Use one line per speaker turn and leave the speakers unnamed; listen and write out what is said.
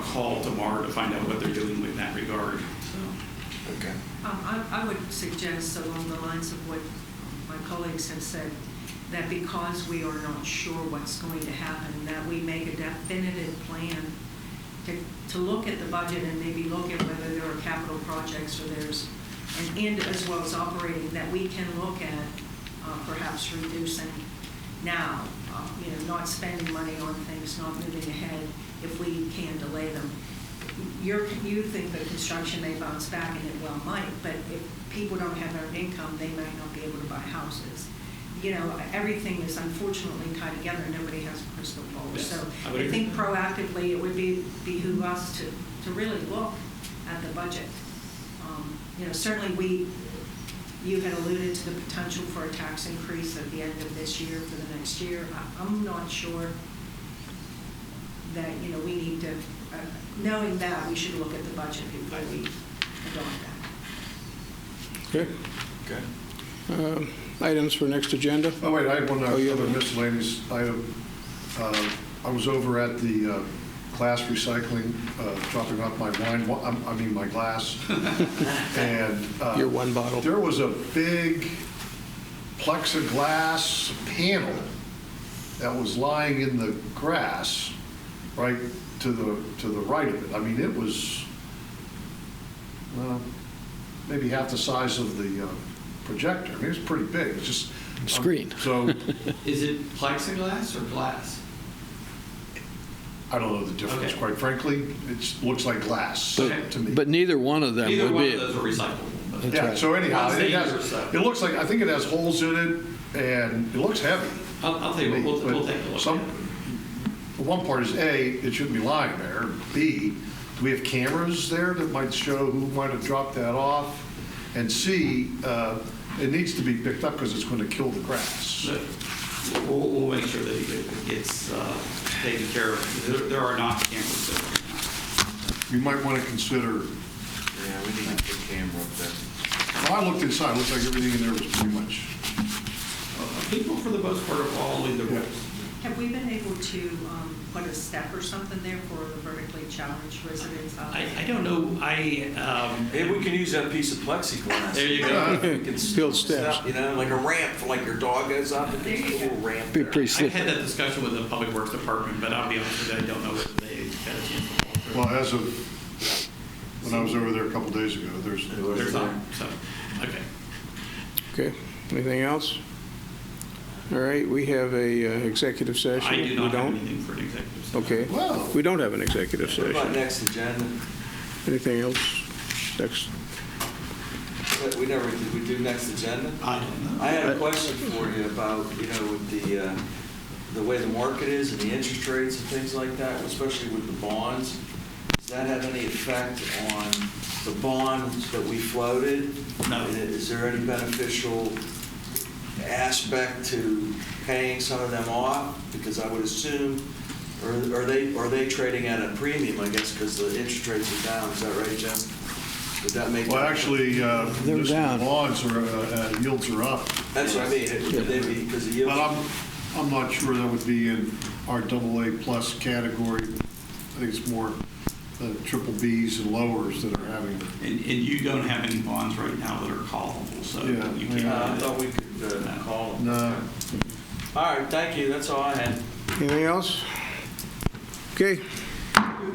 call tomorrow to find out what they're doing with that regard, so.
Okay.
Um, I I would suggest along the lines of what my colleagues have said, that because we are not sure what's going to happen, that we make a definitive plan to, to look at the budget and maybe look at whether there are capital projects or there's an end as well as operating that we can look at uh, perhaps reducing now, uh, you know, not spending money on things, not moving ahead if we can delay them. You're, you think that construction may bounce back, and it well might, but if people don't have earned income, they might not be able to buy houses. You know, everything is unfortunately tied together, and nobody has a crystal ball.
Yes,
So
I would
I think
agree.
proactively, it would be, behoove us to, to really look at the budget. Um, You know, certainly we, you had alluded to the potential for a tax increase at the end of this year for the next year. I- I'm not sure that, you know, we need to, uh, knowing that, we should look at the budget before we adopt that.
Okay.
Okay.
Um, Items for next agenda?
Oh, wait, I have one
Oh, you have
other
a-
miscellaneous item. Uh, I was over at the uh, class recycling, uh, dropping off my wine, wa- I'm- I mean, my glass, and... uh,
Your one bottle.
There was a big plexiglass panel that was lying in the grass, right to the, to the right of it. I mean, it was, well, maybe half the size of the uh, projector. I mean, it was pretty big, it's just.
Screen.
So,
Is it plexiglass or glass?
I don't know the difference,
Okay.
quite frankly. It looks like glass
But-
to me.
But neither one of them
Either
Uh, would
one
be.
of those are recyclable. but-
Yeah, so anyhow,
I'll
it
say yours,
has,
so.
it looks like, I think it has holes in it, and it looks heavy.
I'll, I'll tell you what, we'll, we'll take a look.
Some,
at it.
the one part is, A, it shouldn't be lying there. B, do we have cameras there that might show who might have dropped that off? And C, uh, it needs to be picked up because it's going to kill the grass.
So, We'll, we'll make sure that it gets uh, taken care of. There, there are not cameras there.
You might want to consider,
Yeah, we need to put camera up there.
well, I looked inside, it looked like everything in there was pretty much,
Uh, People, for the most part, are following the rules.
Have we been able to um, put a step or something there for the vertically challenged residents? out
I,
there?
I don't know, I, um,
Maybe we can use that piece of plexiglass.
there you go.
Uh,
We can s-
Build
step,
steps.
You know, like a ramp, for like your dog goes up, and there's a little ramp
Be
there.
pretty
I've had
slippery.
that discussion with the Public Works Department, but I'll be honest with you, I don't know if they got a chance to walk through.
well, as of, when I was over there a couple days ago, there's,
There's not, so, okay.
Okay, anything else? All right, we have a uh, executive session.
I do
We
not have
don't?
anything for an executive session.
Okay,
Wow.
we don't have an executive
What about
session.
next agenda?
Anything else? Next,
What- We never, did we do next agenda?
I don't know.
I had a question for you about, you know, with the, uh, the way the market is and the interest rates and things like that, especially with the bonds. Does that have any effect on the bonds that we floated?
No.
And Is there any beneficial aspect to paying some of them off? Because I would assume, or are they, are they trading at a premium, I guess, because the interest rates are down, is that right, Jim? Would that make?
well, actually, uh,
They're
just
down.
lawns are, uh, uh, yields are up.
That's what I mean, would they be, because the yield.
But I'm, I'm not sure that would be in our double A plus category. I think it's more the triple Bs and lowers that are having.
And, and you don't have any bonds right now that are callable, so you
Yeah.
can't.
Uh, I thought we could uh, call them.
No.
All right, thank you, that's all I had.
anything else? Okay,